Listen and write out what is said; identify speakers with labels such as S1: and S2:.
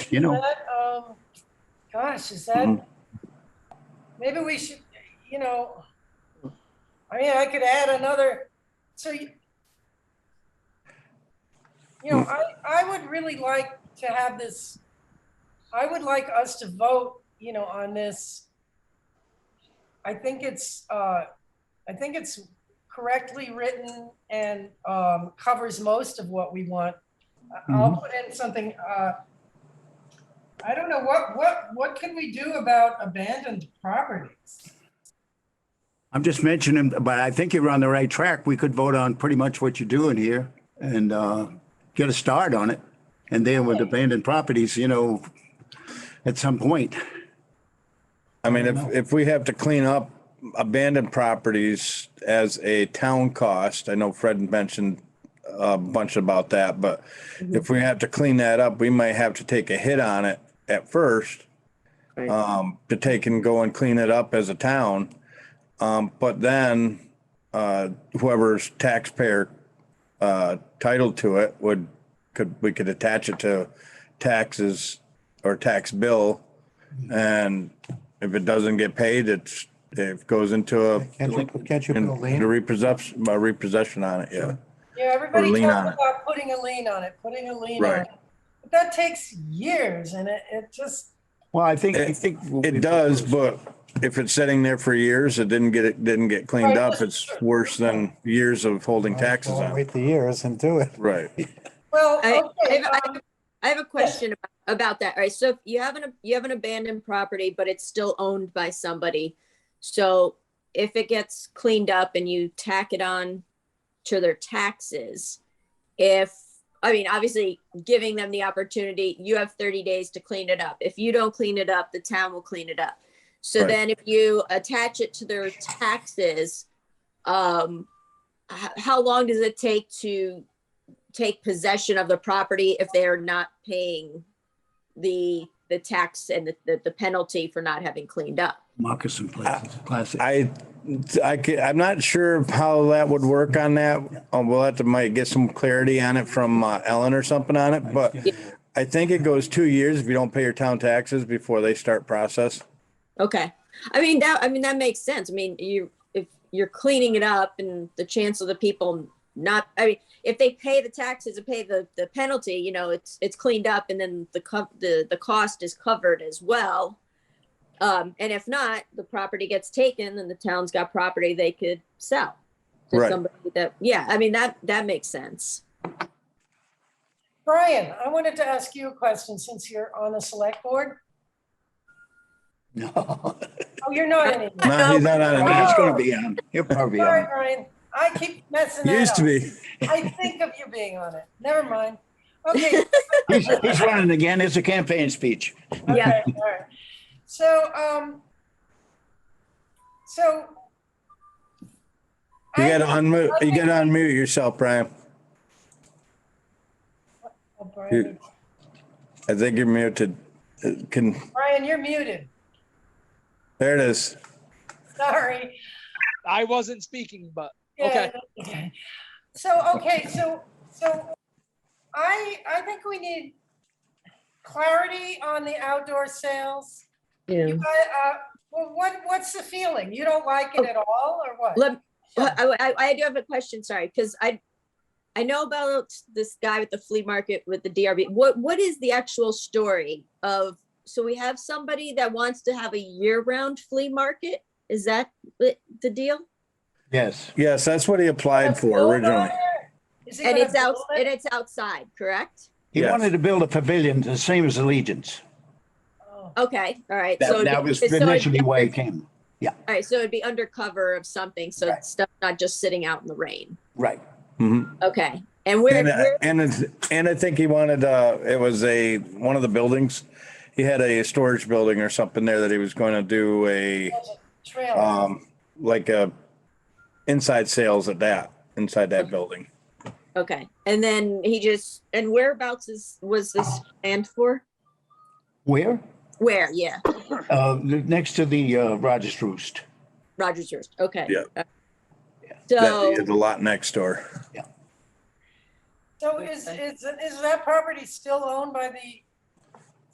S1: you know,
S2: that, um, Gosh, is that,
S1: Mhm.
S2: maybe we should, you know, I mean, I could add another, so you, you know,
S1: Mm.
S2: I, I would really like to have this, I would like us to vote, you know, on this. I think it's, uh, I think it's correctly written and, um, covers most of what we want. I- I'll
S1: Mm-hmm.
S2: put in something, uh, I don't know, what, what, what can we do about abandoned properties?
S1: I'm just mentioning, but I think you're on the right track. We could vote on pretty much what you're doing here and uh, get a start on it. And then with abandoned properties, you know, at some point.
S3: I mean, if, if we have to clean up abandoned properties as a town cost, I know Fred mentioned a bunch about that, but if we have to clean that up, we might have to take a hit on it at first.
S4: Right.
S3: Um, to take and go and clean it up as a town. Um, but then, uh, whoever's taxpayer, uh, titled to it would, could, we could attach it to taxes or tax bill. Mm-hmm. And if it doesn't get paid, it's, it goes into a,
S5: Catch your, catch your bill,
S3: into
S5: Lean.
S3: repossession, a repossession on it, yeah.
S2: Yeah, everybody
S3: lien on
S2: talks
S3: it.
S2: about putting a lien on it, putting a lien on
S3: Right.
S2: it. But that takes years and it, it just,
S1: Well, I think, I
S3: It-
S1: think.
S3: It does, but if it's sitting there for years, it didn't get, it didn't get cleaned up, it's worse than years of holding taxes on it.
S5: Wait the years and do it.
S3: Right.
S2: well,
S4: I- I
S2: okay,
S4: have- I
S2: um,
S4: I have a question ab- about that, All right? So if you have an, you have an abandoned property, but it's still owned by somebody. So if it gets cleaned up and you tack it on to their taxes, if, I mean, obviously giving them the opportunity, you have thirty days to clean it up. If you don't clean it up, the town will clean it up. So
S3: Right.
S4: then if you attach it to their taxes, um, h- how long does it take to take possession of the property if they are not paying the, the tax and the- the, the penalty for not having cleaned up.
S1: Moccasin places, classic.
S3: I, I ca- I'm not sure how that would work on that. Um, We'll have to might get some clarity on it from uh, Ellen or something on it, but I think it goes two years if you don't pay your town taxes before they start process.
S4: Okay. I mean, that, I mean, that makes sense. I mean, you, if you're cleaning it up and the chance of the people not, I mean, if they pay the taxes and pay the, the penalty, you know, it's, it's cleaned up and then the, co- the, the cost is covered as well. Um, and if not, the property gets taken and the town's got property they could sell to
S3: Right.
S4: somebody that, yeah, I mean, that, that makes sense.
S2: Brian, I wanted to ask you a question since you're on the select board.
S1: No,
S2: Oh, you're not anymore.
S3: No, he's not on it now.
S1: it's gonna be on. It'll probably be
S2: Sorry,
S1: on.
S2: Brian. I keep messing that
S3: Used to
S2: up.
S3: be.
S2: I think of you being on it. Never mind. Okay,
S1: He's, he's running again. It's a campaign speech.
S2: Okay, all right. So, um, so.
S3: You
S2: I-
S3: gotta unmute,
S2: I
S3: you
S2: think-
S3: gotta unmute yourself, Brian.
S2: Oh, Brian,
S3: I think you're muted. Uh, Can,
S2: Brian, you're muted.
S3: there it is.
S2: Sorry.
S6: I wasn't speaking, but
S2: Yeah,
S6: Okay.
S2: okay. So, okay, so, so I, I think we need clarity on the outdoor sales.
S4: Yeah.
S2: I, uh, well, what, what's the feeling? You don't like it at all or what?
S4: Let, I, I, I do have a question, sorry, because I, I know about this guy with the flea market with the DRB. What, what is the actual story of, so we have somebody that wants to have a year-round flea market? Is that the, the deal?
S1: Yes.
S3: Yes, that's what he applied for
S2: Build on
S3: originally.
S2: there? Is he
S4: And
S2: gonna
S4: it's out,
S2: build
S4: and
S2: it?
S4: it's outside, correct?
S1: He
S3: Yes.
S1: wanted to build a pavilion, the same as Allegiance.
S2: Oh,
S4: Okay, all right. So
S1: That, that
S4: it'd be-
S1: was
S4: so it'd-
S1: initially why he came.
S4: All right, so it'd be under cover of something, so
S1: Right.
S4: stuff not just sitting out in the rain.
S1: Right.
S3: Mhm.
S4: Okay, and where,
S3: And, uh,
S4: where,
S3: and, it's- and I think he wanted, uh, it was a, one of the buildings. He had a storage building or something there that he was going to do a,
S2: there's a Trail.
S3: um, like a inside sales at that, inside that building.
S4: okay, and then he just, and whereabouts is, was
S1: Uh,
S4: this planned for?
S1: Where?
S4: Where, yeah,
S1: Uh, next to the uh, Rogers Roost.
S4: Rogers yours, okay.
S3: Yeah.
S4: Uh,
S3: That,
S4: So,
S3: he had the lot next door.
S2: So is, is, is that property still owned by the